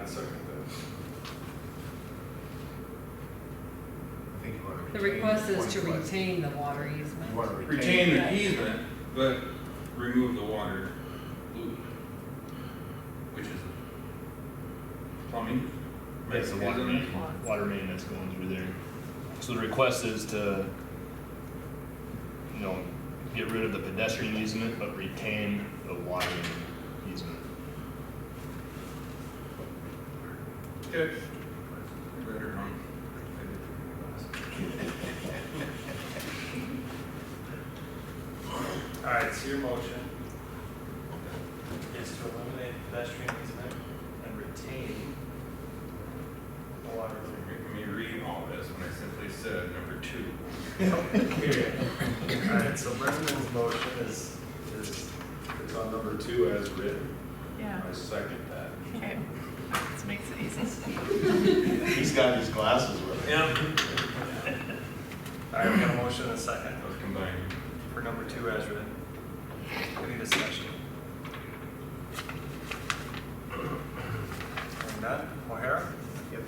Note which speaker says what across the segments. Speaker 1: I'd second that.
Speaker 2: I think you want to
Speaker 3: The
Speaker 2: retain
Speaker 3: request is to
Speaker 2: 25.
Speaker 3: retain the water easement.
Speaker 2: You want to retain.
Speaker 1: Retain the easement, but remove the water loop, which is plumbing.
Speaker 4: That's the water
Speaker 1: isn't it?
Speaker 4: main, water main that's going through there. So the request is to, you know, get rid of the pedestrian easement, but retain the water main easement.
Speaker 1: Okay. I read it wrong. I did it wrong.
Speaker 5: All right, so your motion is to eliminate pedestrian easement and retain the water main.
Speaker 1: Let me read all this when I simply said number two.
Speaker 5: Period. All right, so Brendan's motion is, is,
Speaker 2: It's on number two as written.
Speaker 6: Yeah,
Speaker 2: second that.
Speaker 6: okay. This makes it easy.
Speaker 2: He's got his glasses with him.
Speaker 5: yeah. All right, we got a motion and a second
Speaker 1: Those combined.
Speaker 5: for number two as written. Any discussion? Hearing none, O'Hara?
Speaker 2: Yep.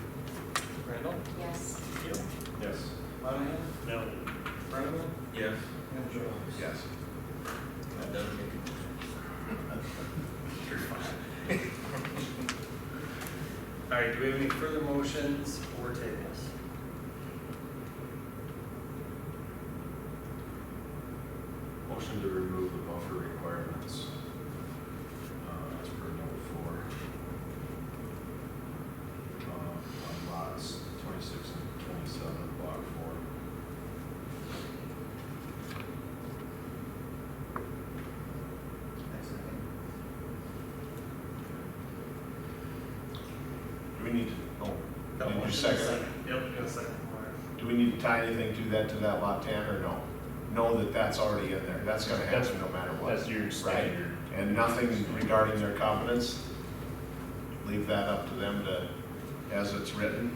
Speaker 5: Randall?
Speaker 7: Yes.
Speaker 5: Keel?
Speaker 2: Yes.
Speaker 5: Monahan?
Speaker 4: No.
Speaker 5: Brennaman?
Speaker 1: Yes.
Speaker 5: And Jones?
Speaker 2: Yes.
Speaker 1: That does make it.
Speaker 5: All right, do we have any further motions or tables?
Speaker 2: Motion to remove the buffer requirements uh, as per number four. Uh, On lots twenty-six and twenty-seven, of block four. Do we need to, oh, did you second it?
Speaker 5: Yep, you got a second. All right.
Speaker 2: Do we need to tie anything to that, to that lot ten, or no? Know that that's already in there, that's gonna
Speaker 4: That's-
Speaker 2: happen no matter what.
Speaker 4: That's your
Speaker 2: Right,
Speaker 4: standard.
Speaker 2: and nothing regarding their covenants, leave that up to them to, as it's written.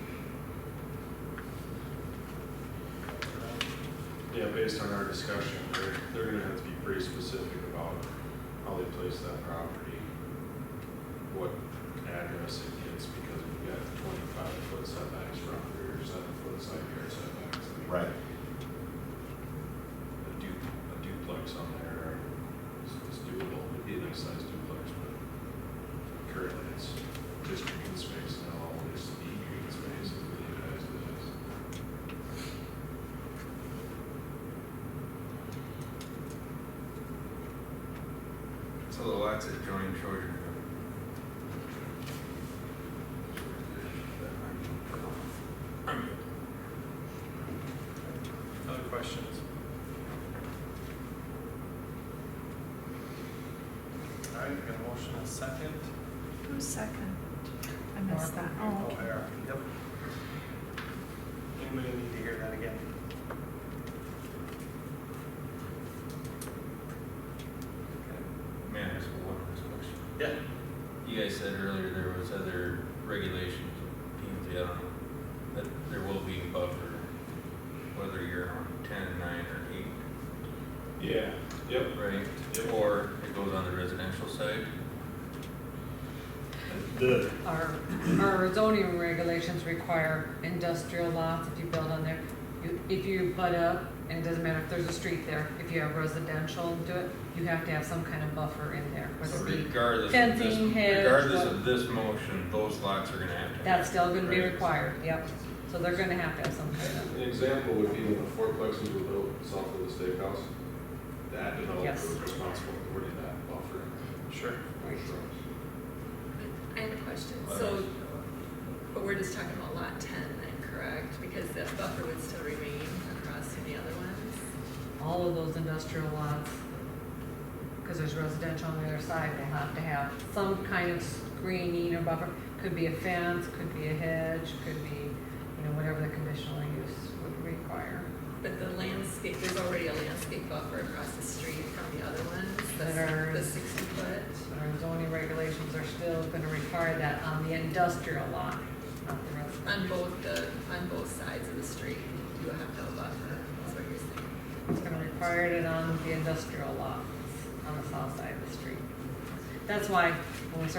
Speaker 8: Yeah, based on our discussion, they're, they're gonna have to be pretty specific about how they place that property, what address it gets, because we've got twenty-five foot setbacks from rear, seven foot side yard setbacks. I mean,
Speaker 2: Right.
Speaker 8: A du, a duplex on there is is doable, it'd be a nice sized duplex, but currently it's just green space now, all this be green space, if we leave it as it is.
Speaker 1: So the lots that join Trojan.
Speaker 5: Other questions? All right, we got a motion and a second.
Speaker 6: Who's second? I missed that. Oh, okay.
Speaker 5: O'Hara, yep. Anybody need to hear that again?
Speaker 1: May I ask one last question?
Speaker 5: Yeah.
Speaker 1: You guys said earlier there was other regulations, P and Z, I don't know, that there will be a buffer, whether you're on ten, nine, or eight,
Speaker 8: Yeah, yep,
Speaker 1: right? Or it goes on the residential side.
Speaker 4: The,
Speaker 3: Our, our zoning regulations require industrial lots, if you build on there, you- if you butt up, and it doesn't matter if there's a street there, if you have residential, do it, you have to have some kind of buffer in there,
Speaker 1: So
Speaker 3: whether it be,
Speaker 1: regardless of this,
Speaker 3: fencing, hedge,
Speaker 1: regardless
Speaker 3: what-
Speaker 1: of this motion, those lots are gonna have to.
Speaker 3: that's still gonna be
Speaker 1: Right.
Speaker 3: required, yep. So they're gonna have to have some kind of,
Speaker 8: An example would be when the fourplexes were built south of the steakhouse. That developer
Speaker 3: Yes.
Speaker 8: was responsible for putting that buffer.
Speaker 5: Sure.
Speaker 7: Right. I have a question. So, but we're just talking about lot ten then, correct? Because that buffer would still remain across from the other ones?
Speaker 3: all of those industrial lots, cause there's residential on the other side, they'll have to have some kind of screening or buffer. Could be a fence, could be a hedge, could be, you know, whatever the conditional use would require.
Speaker 7: But the landscape, there's already a landscape buffer across the street from the other ones,
Speaker 3: There
Speaker 7: the, the
Speaker 3: is.
Speaker 7: sixty foot.
Speaker 3: Our zoning regulations are still gonna require that on the industrial lot, not the residential.
Speaker 7: On both the, on both sides of the street, you have to have a buffer, is what you're saying.
Speaker 3: It's gonna require it on the industrial lot on the south side of the street. That's why when we started